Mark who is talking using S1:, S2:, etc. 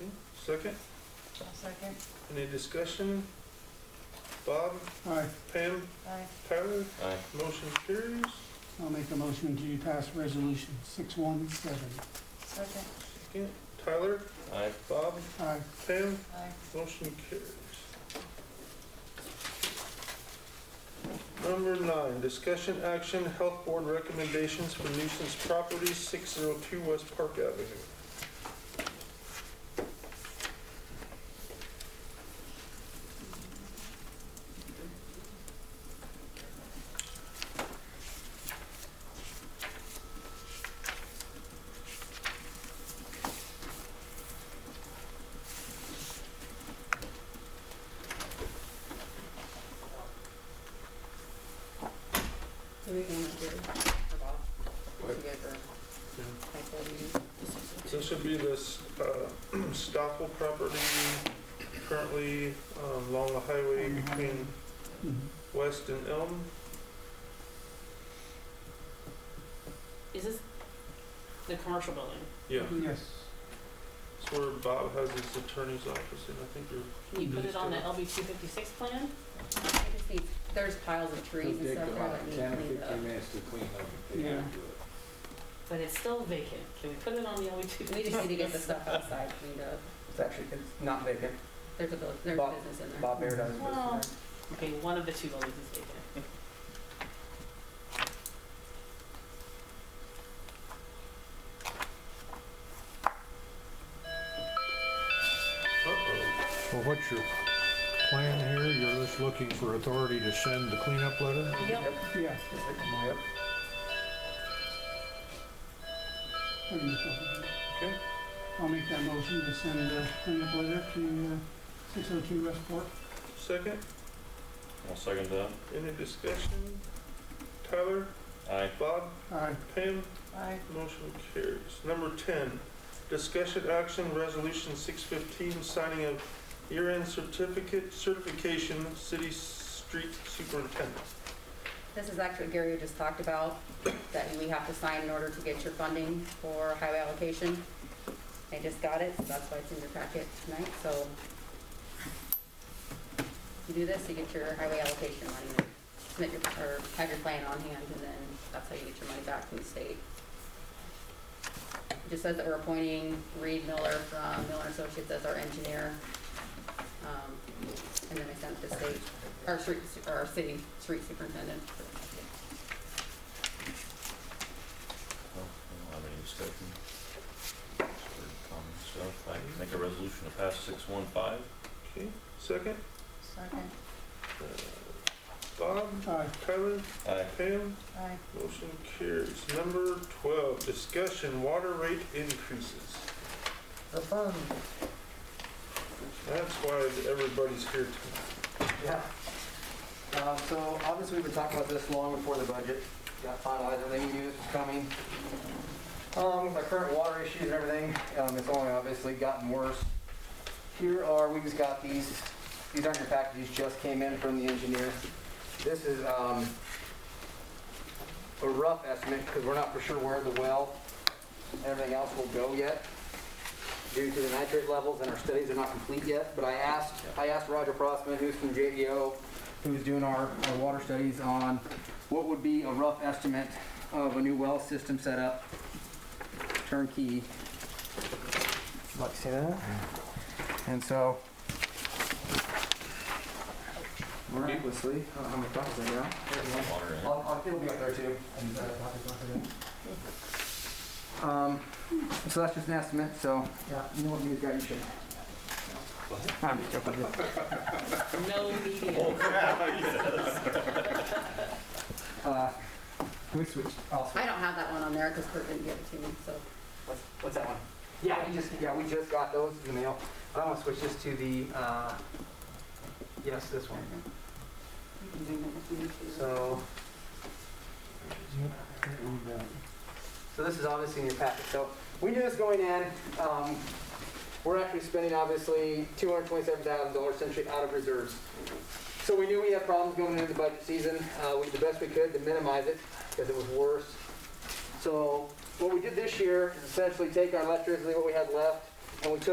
S1: Okay, Second,
S2: I'll second.
S1: any discussion? Bob,
S3: Aye,
S1: Pam,
S2: Aye.
S1: Tyler,
S4: Aye.
S1: motion carries.
S3: I'll make a motion to pass resolution six one seven.
S2: Second.
S1: Second, Tyler,
S4: Aye.
S1: Bob,
S3: Aye,
S1: Pam,
S2: Aye.
S1: motion carries. Number nine, discussion action, health board recommendations for nuisance properties, six zero two West Park Avenue.
S2: Do we want to do it for Bob?
S1: What?
S2: To get her,
S1: Yeah.
S2: like, what do you-
S1: This should be this uh, Stockwell property currently um, along the highway
S3: On the
S1: between
S3: Mhm.
S1: West and Elm.
S5: Is this the commercial building?
S1: Yeah,
S3: yes.
S1: it's where Bob has his attorney's office and I think you're,
S5: Can you put it on the
S1: Understood.
S5: LB two fifty-six plan?
S2: I just need- There's piles of trees and stuff there that need
S6: Ten or
S2: cleaned up.
S6: fifteen minutes to clean up if they
S3: Yeah.
S6: have to do it.
S5: But it's still vacant. Can we put it on the LB two
S2: We just need to get the
S5: fifty-six?
S2: stuff outside cleaned up.
S7: It's actually, it's not vacant.
S2: There's a, bu- there's
S7: Bob-
S2: business in there.
S7: Bob Baird has a
S5: Well,
S7: business
S5: Okay, one of the two buildings is vacant.
S1: uh-oh.
S8: Well, what's your plan here? You're just looking for authority to send the cleanup letter?
S5: Yep.
S3: Yeah.
S7: there. Yep.
S3: I can just open it.
S1: Okay.
S3: I'll make that motion to send the cleanup letter to six oh two West Fork.
S1: Second,
S4: I'll second that.
S1: any discussion? Tyler,
S4: Aye.
S1: Bob,
S3: Aye,
S1: Pam,
S2: Aye.
S1: motion carries. Number 10, discussion action, resolution 615, signing of year-end certificate, certification, city street superintendent.
S2: This is actually what Gary just talked about, that we have to sign in order to get your funding for highway allocation. I just got it, so that's why it's in your packet tonight, so. You do this, you get your highway allocation money, and submit your, or have your plan on hand, and then that's how you get your money back from the state. It just says that we're appointing Reed Miller from Miller Associates as our engineer. Um, And then I sent the state our street, su- or our city street superintendent.
S4: Well, Oh, I don't have any discussion. Just heard common stuff. I can make a resolution to pass six one five.
S1: Okay, second,
S2: Second.
S1: uh, Bob,
S3: aye.
S1: Tyler,
S4: Aye.
S1: Pam,
S2: Aye.
S1: motion carries. Number 12, discussion water rate increases.
S7: Have fun.
S1: That's why everybody's here tonight.
S7: Yeah. Uh, So obviously, we've been talking about this long before the budget got finalized, everything we knew this was coming. Um, With our current water issues and everything, um, it's only obviously gotten worse. Here are, we just got these, these aren't your packages, just came in from the engineer. This is um, a rough estimate, because we're not for sure where the well, and everything else will go yet. due to the nitrate levels, and our studies are not complete yet, but I asked, I asked Roger Prossman, who's from JDO, who's doing our, our water studies on what would be a rough estimate of a new well system setup, turnkey. Like, see that? And so, miraculously, I don't know how many copies I got. There's one.
S4: Water in.
S7: I'll, I'll, it'll be up there too. and, uh, Um, so that's just an estimate, so, yeah, you know what news guy you should. I'm just joking.
S5: No media.
S7: Uh, we switched. I'll switch.
S2: I don't have that one on there because Kurt didn't give it to me, so.
S7: What's, what's that one? Yeah, we just, yeah, we just got those in the mail. But I'm gonna switch this to the, uh, yes, this one.
S2: you can bring that with you too.
S7: So. So this is obviously in your packet. So we knew this going in. Um, we're actually spending obviously two hundred twenty-seven thousand dollars essentially out of reserves. So we knew we had problems going into the budget season. Uh, we did the best we could to minimize it because it was worse. So what we did this year is essentially take our electricity, what we had left, and we took